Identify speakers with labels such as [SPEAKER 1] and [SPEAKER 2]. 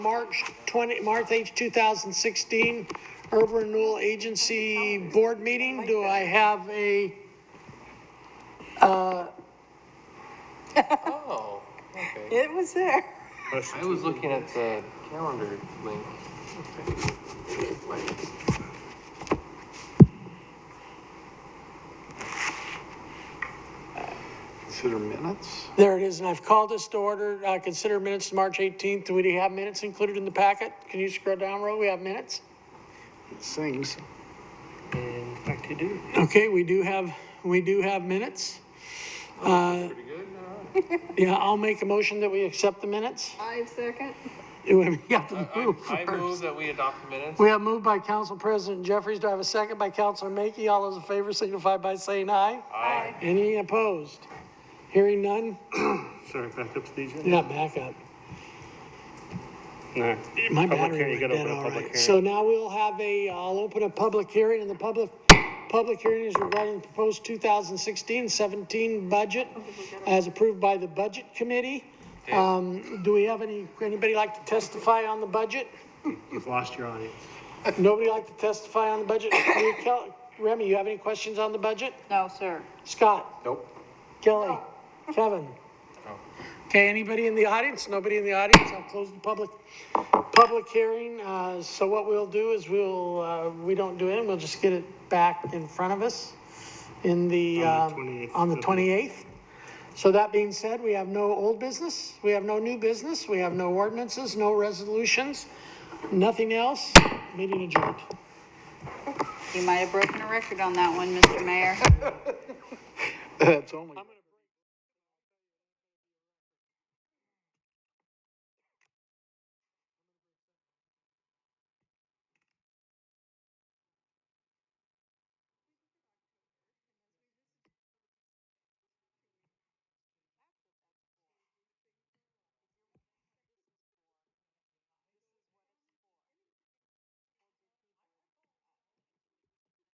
[SPEAKER 1] March 20, March 8, 2016, Urban Renewal Agency Board Meeting. Do I have a,
[SPEAKER 2] Oh, okay.
[SPEAKER 3] It was there.
[SPEAKER 2] I was looking at the calendar link.
[SPEAKER 4] Consider minutes?
[SPEAKER 1] there it is, and I've called this to order. Uh, Consider minutes to March 18th. Do we have minutes included in the packet? Can you scroll down, Ro? We have minutes?
[SPEAKER 4] Things.
[SPEAKER 2] In fact, you do.
[SPEAKER 1] Okay, we do have, we do have minutes. Uh,
[SPEAKER 2] Pretty good.
[SPEAKER 1] Yeah, I'll make a motion that we accept the minutes.
[SPEAKER 3] Five second.
[SPEAKER 1] We have to move
[SPEAKER 2] I move
[SPEAKER 1] first.
[SPEAKER 2] that we adopt the minutes.
[SPEAKER 1] We have moved by Council President Jeffries. Do I have a second by Councilor Mackey? All those in favor signify by saying aye.
[SPEAKER 2] Aye.
[SPEAKER 1] Any opposed? Hearing none?
[SPEAKER 5] Sorry, back up to the agenda?
[SPEAKER 1] Yeah, back up.
[SPEAKER 5] No.
[SPEAKER 1] My
[SPEAKER 5] Public hearing,
[SPEAKER 1] battery went
[SPEAKER 5] you gotta
[SPEAKER 1] dead,
[SPEAKER 5] open a
[SPEAKER 1] all
[SPEAKER 5] public
[SPEAKER 1] right.
[SPEAKER 5] hearing.
[SPEAKER 1] So now we'll have a, I'll open a public hearing, and the public, public hearing is regarding the proposed 2016-17 budget as approved by the Budget Committee. Um, do we have any, anybody like to testify on the budget?
[SPEAKER 5] You've lost your audience.
[SPEAKER 1] Nobody like to testify on the budget? Maria Kel- Remy, you have any questions on the budget?
[SPEAKER 3] No, sir.
[SPEAKER 1] Scott?
[SPEAKER 2] Nope.
[SPEAKER 1] Kelly? Kevin? Okay, anybody in the audience? Nobody in the audience? I'll close the public, public hearing. Uh, so what we'll do is we'll, uh, we don't do it, we'll just get it back in front of us in the,
[SPEAKER 5] On
[SPEAKER 1] um,
[SPEAKER 5] the 28th.
[SPEAKER 1] on the twenty-eighth. So that being said, we have no old business, we have no new business, we have no ordinances, no resolutions, nothing else. Meeting adjourned.
[SPEAKER 3] You might have broken a record on that one, Mr. Mayor.
[SPEAKER 4] That's only.